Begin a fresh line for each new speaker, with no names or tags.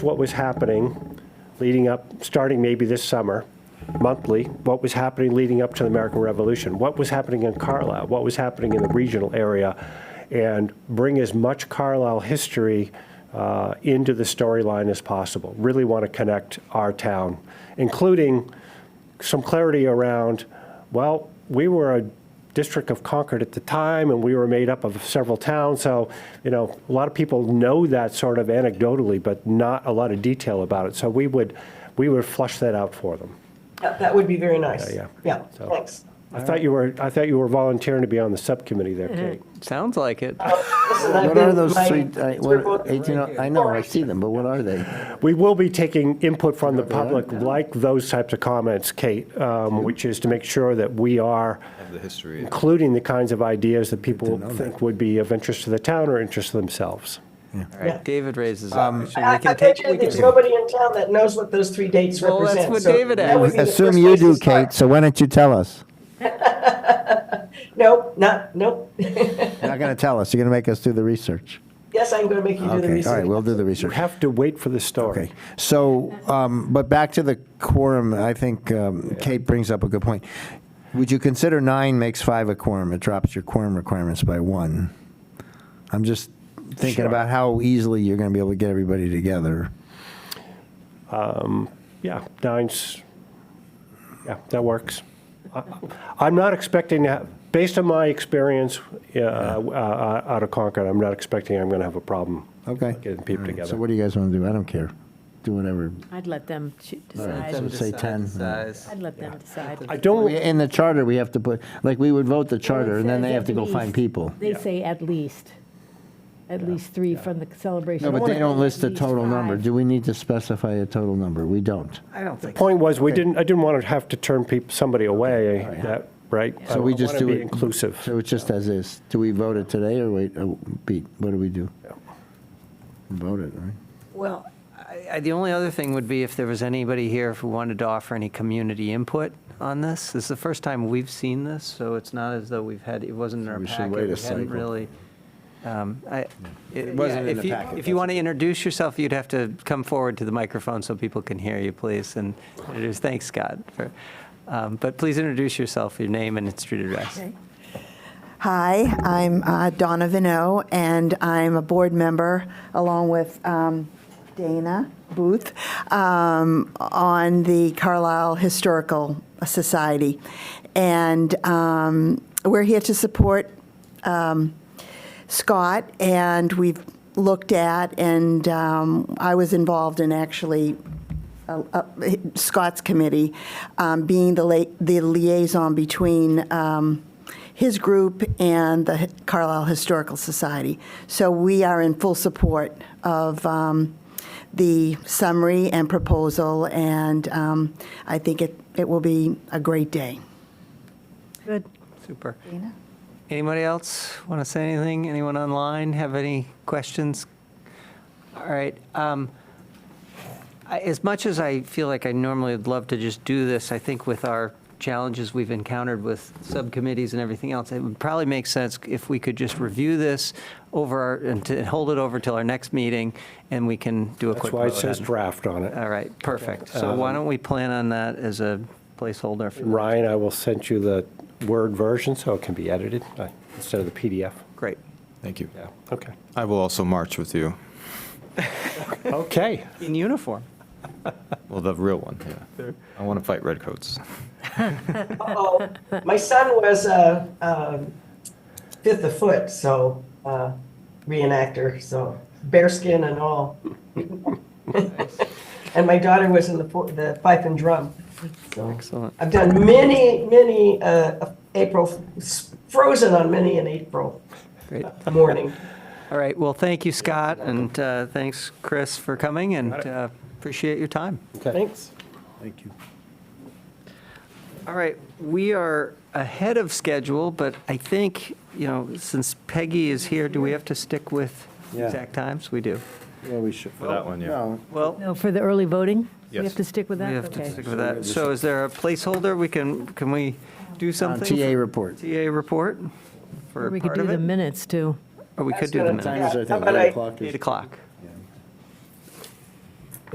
what was happening leading up, starting maybe this summer, monthly, what was happening leading up to the American Revolution, what was happening in Carlisle, what was happening in the regional area, and bring as much Carlisle history uh, into the storyline as possible. Really want to connect our town, including some clarity around, well, we were a district of Concord at the time, and we were made up of several towns, so, you know, a lot of people know that sort of anecdotally, but not a lot of detail about it. So we would, we would flush that out for them.
Yeah, That would be very nice.
Yeah,
Yeah,
So-
thanks.
I thought you were, I thought you were volunteering to be on the subcommittee there, Kate.
Sounds like it.
Listen, I've
What are
been-
those
my-
three, I- what,
scribbled-
eighteen, uh, I know, I see them, but what are they?
We will be taking input from the public, like those types of comments, Kate, um, which is to make sure that we are
of the history.
including the kinds of ideas that people think would be of interest to the town or interest to themselves.
All
Yeah.
right, David raises up.
Um,
We
I I
can
bet
take-
you
we can
there's nobody in town that knows what those three dates
Well,
represent.
that's what
so
David
that
asked.
would be the
Assume
first
you
place to
do,
start.
Kate, so why don't you tell us?
No, not, nope.
You're not gonna tell us, you're gonna make us do the research.
Yes, I'm going to make you do the
Okay, all right,
research.
we'll do the
You
research.
have to wait for the story.
Okay, so, um, but back to the quorum, I think um, Kate brings up a good point. Would you consider nine makes five a quorum? It drops your quorum requirements by one. I'm just thinking
Sure.
about how easily you're gonna be able to get everybody together.
Yeah, nine's, yeah, that works. I- I'm not expecting, to have- based on my experience uh, uh, out of Concord, I'm not expecting I'm going to have a problem
Okay.
getting people
All right,
together.
So what do you guys want to do? I don't care. Do whatever.
I'd let them cho-
right,
decide.
so- say
decide
10,
the size.
I'd let them decide.
I don't,
In the charter, we have to put, like, we would vote the charter, and then
It
they
says
have to
at
go find
least.
people.
They say at least, at least three from the celebration.
No, but they don't list
At
the
least
total number.
five.
Do we need to specify a total number? We don't.
I don't think.
point was, we didn't, I didn't want to have to turn people, somebody away, that, right? I
So we
wanna
just do
be
it.
inclusive.
So it's just as is. Do we vote it today, or wait, oh, Pete, what do we do? Vote it, right?
Well, I- I- the only other thing would be if there was anybody here who wanted to offer any community input on this. This is the first time we've seen this, so it's not as though we've had, it wasn't in our
we should
packet.
wait a
hadn't
cycle.
really, um, I- It
wasn't
yeah,
in
if
the
you-
packet,
If you
that's
want to introduce yourself, you'd have to come forward to the microphone so people can hear you, please. And introduce, thanks, Scott. for- um, But please introduce yourself, your name and street address.
Hi, I'm uh, Donna Vino, and I'm a board member along with um, Dana Booth um, on the Carlisle Historical Society. And um, we're here to support um, Scott, and we've looked at, and um, I was involved in actually uh, uh, Scott's committee, um, being the la- the liaison between um, his group and the Carlisle Historical Society. So we are in full support of um, the summary and proposal, and um, I think it it will be a great day.
Good.
Super. Anybody else want to say anything? Anyone online have any questions? All right. um, I- As much as I feel like I normally would love to just do this, I think with our challenges we've encountered with subcommittees and everything else, it would probably make sense if we could just review this over, our- and to hold it over till our next meeting, and we can do a
That's
quick
why it
vote.
says
on-
draft on it. Um,
All right, perfect. So why don't we plan on that as a placeholder for
Ryan, I will send you the Word version so it can be edited uh, instead of the PDF.
Great.
Thank you.
Yeah, okay.
I will also march with you.
Okay.
In uniform.
Well, the real one, yeah. I want to fight redcoats.
Uh-oh. My son was uh, um, fifth of foot, so uh, reenactor, so bear skin and all. And my daughter was in the po- the pipe and drum. so.
Excellent.
I've done many, many uh, April, frozen on many an April
Great.
morning.
All right, well, thank you, Scott, and uh, thanks, Chris, for coming, and uh, appreciate your time.
Thanks.
Thank you.
All right, we are ahead of schedule, but I think, you know, since Peggy is here, do we have to stick with
Yeah.
exact times? We do.
Yeah, we should.
For that one, yeah.
Well,
No, for the early voting? We
Yes.
have to stick with
we
that?
have to
Okay.
stick with that. So is there a placeholder? We can, can we do
On
something?
TA report.
TA report
Or
for
We could
part
do
of
the
it?
minutes, too.
Or we could do the minutes.
Times, I
How
think,
about
eight
I-
o'clock is.
8 o'clock.